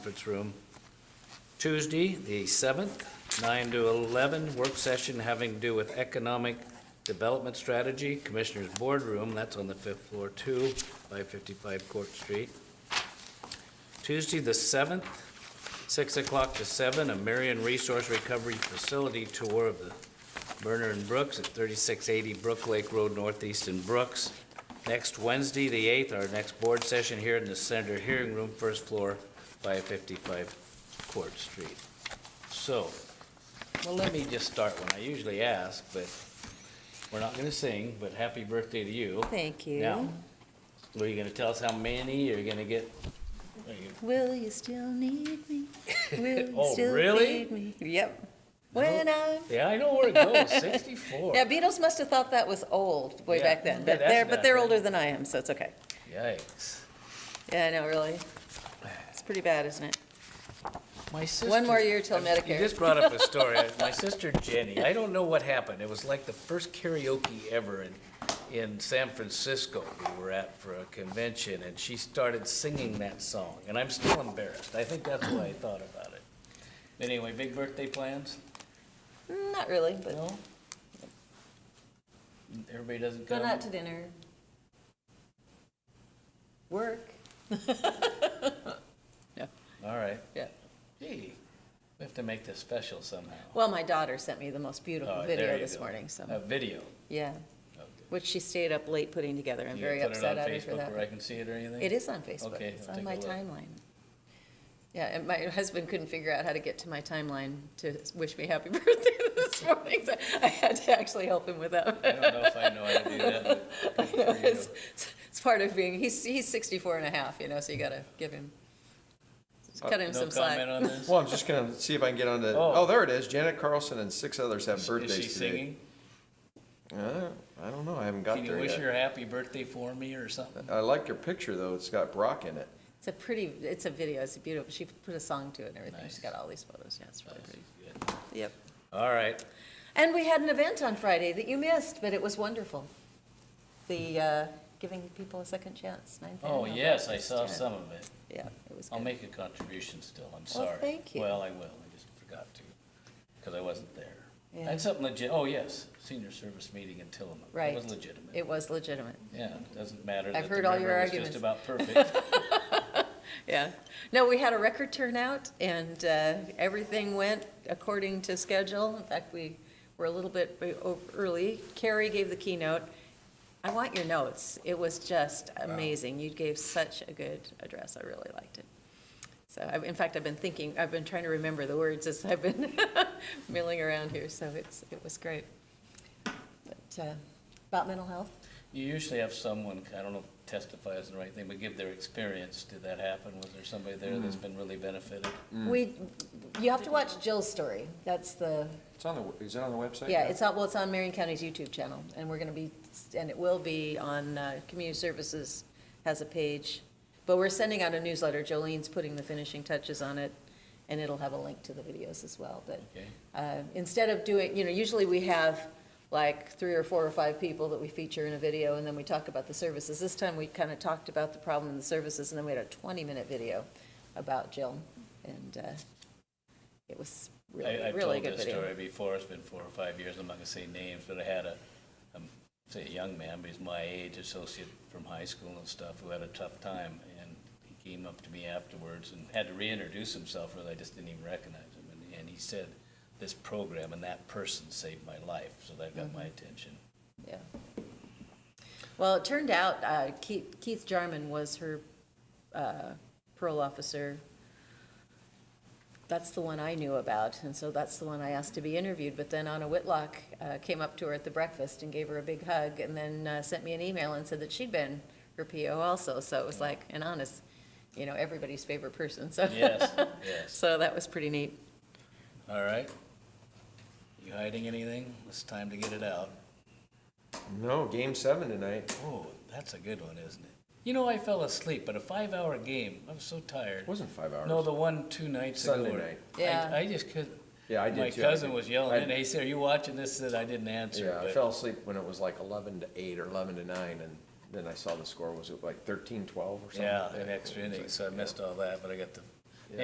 conference room. Tuesday, the 7th, 9 to 11, work session having to do with economic development strategy, Commissioners Boardroom, that's on the fifth floor too, 555 Court Street. Tuesday, the 7th, 6 o'clock to 7, a Marion Resource Recovery Facility Tour of the Burner and Brooks at 3680 Brook Lake Road Northeast in Brooks. Next Wednesday, the 8th, our next board session here in the Senator Hearing Room, first floor, 555 Court Street. So, well, let me just start one. I usually ask, but we're not going to sing, but happy birthday to you. Thank Now, you. are you going to tell us how many you're going to get? are you- Will you still need me? Will you Oh, still really? need me? Yep. When I'm, Yeah, I know where it goes, 64. now Beatles must have thought that was old way Yeah, back then, bet but that's they're, but they're nothing. older than I am, so it's okay. Yikes. Yeah, I know, really. It's pretty bad, isn't it? My sister. more year till I'm- You Medicare. just brought up a story. My sister Jenny, I don't know what happened. It was like the first karaoke ever in, in San Francisco. We were at for a convention and she started singing that song. And I'm still embarrassed. I think that's why I thought about it. Anyway, big birthday plans? Mm, Not really, but No? Everybody doesn't come? going out to dinner. Work. All right. Yeah. Gee, we have to make this special somehow. Well, my daughter sent me the most beautiful Oh, there video you this go. Oh. morning, so, A video. yeah, Okay. which she stayed up late putting together. I'm You very upset at her for Put it on that. Facebook where I can see it or anything? It is on Facebook. Okay, It's I'll on take a my look. timeline. Yeah, and my husband couldn't figure out how to get to my timeline to wish me happy birthday this morning, so I had to actually help him with that. I don't know if I know how to do that, I but know, good for you. It's it's part of being, he's, he's 64 and a half, you know, so you gotta give him, cut him some slack. Uh, No comment on this? Well, I'm just gonna see if I can get on the, Oh. oh, there it is, Janet Carlson and six others have Is she birthdays today. singing? Uh, I don't know, I haven't got Can you there wish her yet. a happy birthday for me or something? I like your picture though, it's got Brock in it. It's a pretty, it's a video, it's a beautiful, she put a song to it and everything, she's Nice. got all these photos, yeah, it's really pretty. Oh, Good. Yep. All right, And we had an event on Friday that you missed, but it was wonderful. The, uh, giving people a second chance, nine thirty. oh, yes, I saw some of it. Yeah, it was I'll good. make a contribution still, I'm sorry. thank you. Well, I will, I just forgot to, because I wasn't there. Yeah. That's something legit, oh, yes, senior service meeting in Tillamook. It was Right. legitimate, It was legitimate, yeah, it doesn't matter I've that the heard all your river was just arguments. about perfect. yeah. No, we had a record turnout, and uh, everything went according to schedule. In fact, we were a little bit o- early. Carrie gave the keynote. I want your notes. It was just amazing. You gave such a good address. I really liked it. So, I've- in fact, I've been thinking, I've been trying to remember the words as I've been milling around here, so it's, it was great. But, uh, about mental health? You usually have someone, I don't know if testify is the right thing, but give their experience. Did that happen? Was there somebody there that's Mm. been really benefited? We, you have to watch Jill's story. That's the, It's on the, is it on the website? yeah, it's on, well, it's on Marion County's YouTube channel, and we're gonna be, and it will be on, uh, Community Services has a page. But we're sending out a newsletter. Jolene's putting the finishing touches on it, and it'll have a link to the videos as well, but Okay. uh, instead of doing, you know, usually we have like three or four or five people that we feature in a video, and then we talk about the services. This time, we kind of talked about the problem and the services, and then we had a 20-minute video about Jill, and uh, it was I, really, I've really told good this video. story before. It's been four or five years. I'm not gonna say names, but I had a, um, say a young man, but he's my age, associate from high school and stuff, who had a tough time. And he came up to me afterwards and had to reintroduce himself, really. I just didn't even recognize him. And, and he said, this program and that person saved my life, so that Mm-hmm. got my attention. Yeah. Well, it turned out uh, Keith Keith Jarman was her uh, parole officer. That's the one I knew about, and so that's the one I asked to be interviewed. But then Anna Whitlock uh, came up to her at the breakfast and gave her a big hug, and then uh, sent me an email and said that she'd been her PO also. So it was like, and Anna's, you know, everybody's favorite person, so. Yes, yes. So that was pretty neat. All right. You hiding anything? It's time to get it out. No, game seven tonight. Oh, that's a good one, isn't it? You know, I fell asleep, but a five-hour game, I was so tired. It wasn't five hours. No, the one two nights ago. Sunday where- night. I- Yeah. I just couldn't. Yeah, I did My too. I cousin did. was yelling in, I- hey, said, are you watching this? And I didn't answer, Yeah, I but- fell asleep when it was like eleven to eight or eleven to nine and then I saw the score was it like 13-12 or something. Yeah, an extra It was inning, like- so I missed all that, but I got the